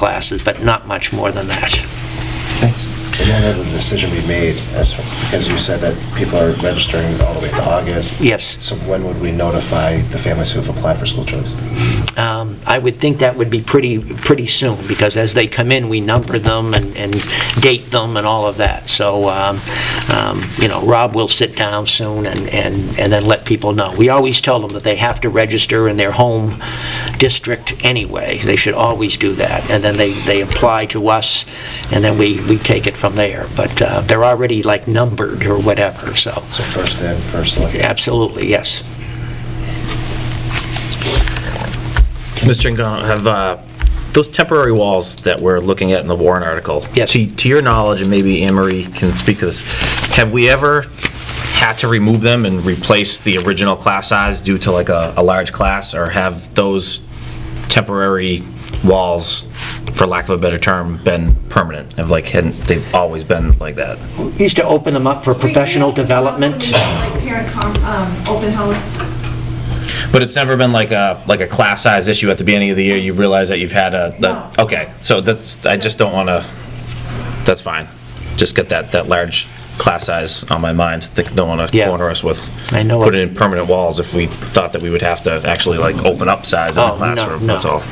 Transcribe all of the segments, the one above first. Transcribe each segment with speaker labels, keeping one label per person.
Speaker 1: classes, but not much more than that.
Speaker 2: And then let the decision be made, as, because you said that people are registering all the way to August.
Speaker 1: Yes,
Speaker 2: So when would we notify the families who have applied for school choice?
Speaker 1: um, I would think that would be pretty, pretty soon, because as they come in, we number them and, and date them and all of that. So, um, um, you know, Rob will sit down soon and, and, and then let people know. We always tell them that they have to register in their home district anyway. They should always do that, and then they, they apply to us, and then we, we take it from there. But, uh, they're already like numbered or whatever, so,
Speaker 2: So first in, first look.
Speaker 1: absolutely, yes.
Speaker 3: Mr. Ngong, have uh, those temporary walls that we're looking at in the Warren article?
Speaker 1: Yes.
Speaker 3: To to your knowledge, and maybe Anne Marie can speak to this, have we ever had to remove them and replace the original class size due to like a a large class? Or have those temporary walls, for lack of a better term, been permanent? Have like, hadn't, they've always been like that?
Speaker 1: used to open them up for professional development.
Speaker 4: Like parent com, um, open house.
Speaker 3: But it's never been like a, like a class size issue at the beginning of the year, you've realized that you've had a, that-
Speaker 4: No.
Speaker 3: okay, so that's, I just don't want to, that's fine. Just get that, that large class size on my mind, that don't want to
Speaker 1: Yeah.
Speaker 3: corner us with.
Speaker 1: I know
Speaker 3: Put
Speaker 1: it-
Speaker 3: in permanent walls if we thought that we would have to actually like open up size
Speaker 1: Oh,
Speaker 3: in
Speaker 1: no,
Speaker 3: a classroom,
Speaker 1: no.
Speaker 3: that's all.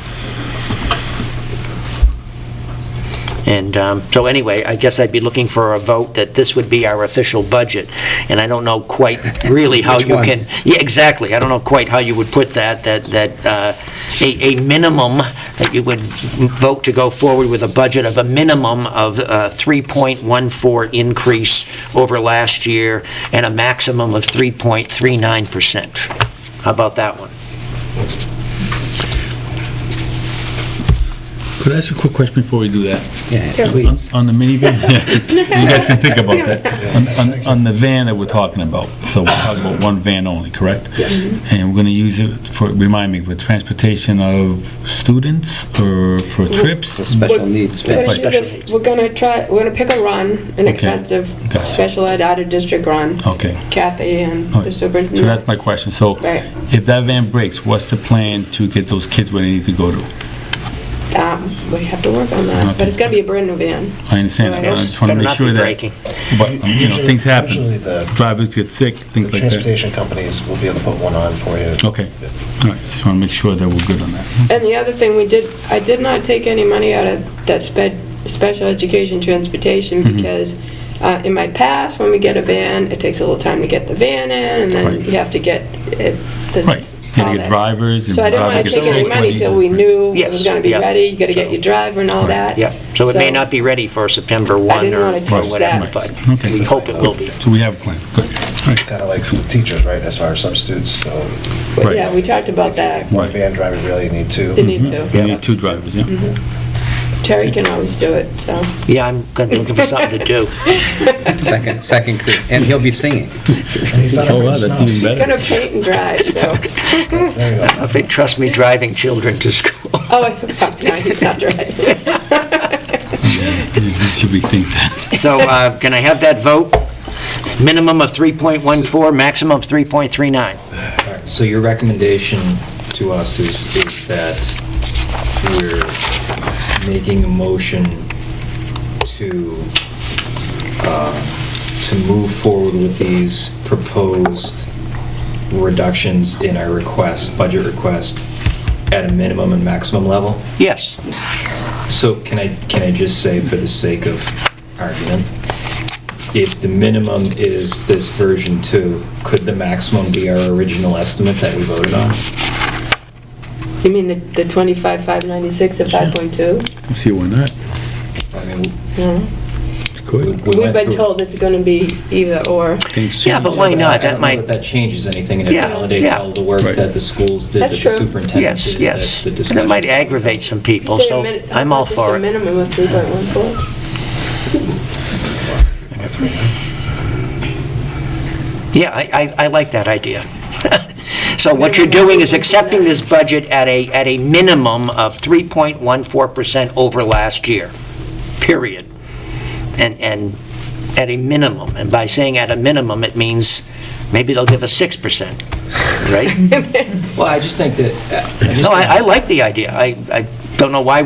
Speaker 1: And um, so anyway, I guess I'd be looking for a vote that this would be our official budget. And I don't know quite really how you can, yeah, exactly. I don't know quite how you would put that, that, that uh, a, a minimum, that you would vote to go forward with a budget of a minimum of uh, 3.14 increase over last year and a maximum of 3.39%. How about that one?
Speaker 5: Could I ask a quick question before we do that?
Speaker 2: Yeah,
Speaker 5: On- On the minivan? You guys can think about that. On- On, on the van that we're talking about, so we're talking about one van only, correct? Yes. And we're gonna use it for, remind me, for transportation of students or for trips?
Speaker 6: Special needs.
Speaker 7: We're gonna do
Speaker 1: Special
Speaker 7: the-
Speaker 1: needs.
Speaker 7: We're gonna try, we're gonna pick a run, an expensive
Speaker 5: Gotcha.
Speaker 7: special ed out-of-district run.
Speaker 5: Okay.
Speaker 7: Kathy and
Speaker 5: All right.
Speaker 7: the
Speaker 5: Oh. So that's
Speaker 7: superintendent.
Speaker 5: my question. So
Speaker 7: Right.
Speaker 5: if that van breaks, what's the plan to get those kids where they need to go to?
Speaker 7: Um, We have to work on that, but it's gonna be a brand-new van.
Speaker 5: I understand that, but I just wanna
Speaker 1: Better
Speaker 5: make
Speaker 1: not
Speaker 5: sure
Speaker 1: be
Speaker 5: that.
Speaker 1: breaking.
Speaker 5: But, um, you know, things
Speaker 2: Usually
Speaker 5: happen.
Speaker 2: the-
Speaker 5: Drivers get sick,
Speaker 2: The
Speaker 5: things like that. Oh.
Speaker 2: transportation companies will be able to put one on for you.
Speaker 5: Okay. All right, just wanna make sure that we're good on that.
Speaker 7: And the other thing, we did, I did not take any money out of that sped, special education transportation
Speaker 5: Mm-hmm.
Speaker 7: because uh, in my past, when we get a van, it takes a little time to get the van in and then
Speaker 5: Right.
Speaker 7: you have to get it. the-
Speaker 5: Right. You
Speaker 7: all
Speaker 5: gotta get
Speaker 7: that.
Speaker 5: drivers and
Speaker 7: So I didn't
Speaker 5: driver
Speaker 7: want to
Speaker 5: gets
Speaker 7: take any
Speaker 5: sick. when
Speaker 7: money
Speaker 5: he-
Speaker 7: till we knew it
Speaker 1: Yes,
Speaker 7: was gonna be
Speaker 1: yeah.
Speaker 7: ready, you gotta get your driver and all
Speaker 5: Right.
Speaker 7: that.
Speaker 1: Yep, so it may not be ready for September 1
Speaker 7: didn't
Speaker 1: or
Speaker 7: wanna
Speaker 1: or
Speaker 7: touch
Speaker 1: whatever,
Speaker 7: that.
Speaker 1: but
Speaker 5: Okay.
Speaker 1: we hope it will be.
Speaker 5: So we have a plan, good. All right.
Speaker 2: Kind of like school teachers, right, as far as substitutes, so
Speaker 7: But
Speaker 5: Right.
Speaker 7: Yeah, we talked about that.
Speaker 2: one
Speaker 5: Right.
Speaker 2: van driver really need
Speaker 7: You
Speaker 2: two.
Speaker 7: need to.
Speaker 5: We need two drivers, yeah.
Speaker 7: Terry can always do it, so.
Speaker 1: Yeah, I'm going to be looking for something to do.
Speaker 6: Second, second grade, and he'll be singing.
Speaker 2: He's not
Speaker 5: Oh,
Speaker 2: afraid
Speaker 5: wow,
Speaker 2: of
Speaker 5: that's
Speaker 2: snow.
Speaker 5: even better.
Speaker 7: Gonna paint and drive, so.
Speaker 2: There you go.
Speaker 1: If they trust me driving children to school.
Speaker 7: Oh, I forgot, no, he's not driving.
Speaker 5: Yeah, yeah, Should we think that?
Speaker 1: So uh, can I have that vote? Minimum of 3.14, maximum of 3.39.
Speaker 8: So your recommendation to us is, is that we're making a motion to, uh, to move forward with these proposed reductions in our request, budget request, at a minimum and maximum level?
Speaker 1: Yes,
Speaker 8: So can I, can I just say, for the sake of argument, if the minimum is this version two, could the maximum be our original estimate that we voted on?
Speaker 7: You mean the the 25, 596 at 5.2?
Speaker 5: See, why not?
Speaker 8: I mean,
Speaker 7: No.
Speaker 8: we-
Speaker 5: Good.
Speaker 8: we
Speaker 7: We've
Speaker 8: went
Speaker 7: been
Speaker 8: through-
Speaker 7: told it's gonna be either or.
Speaker 5: Thanks.
Speaker 1: yeah, but why
Speaker 8: I
Speaker 1: not?
Speaker 8: don't
Speaker 1: That
Speaker 8: know
Speaker 1: might,
Speaker 8: that changes anything, and it
Speaker 1: Yeah,
Speaker 8: validates
Speaker 1: yeah.
Speaker 8: all the work
Speaker 5: Right.
Speaker 8: that the schools did, that the
Speaker 7: That's true.
Speaker 8: superintendent
Speaker 1: yes,
Speaker 8: did.
Speaker 1: yes.
Speaker 8: that the
Speaker 1: And it might
Speaker 8: discussions-
Speaker 1: aggravate some people,
Speaker 7: Say a
Speaker 1: so
Speaker 7: min-
Speaker 1: I'm all
Speaker 7: just
Speaker 1: for
Speaker 7: a
Speaker 1: it.
Speaker 7: minimum of 3.14?
Speaker 1: Yeah, I, I, I like that idea. So what you're doing is accepting this budget at a, at a minimum of 3.14% over last year, period. And, and at a minimum, and by saying at a minimum, it means maybe they'll give us 6%, right?
Speaker 8: Well, I just think that.
Speaker 1: No, I, I like the idea. I, I don't know why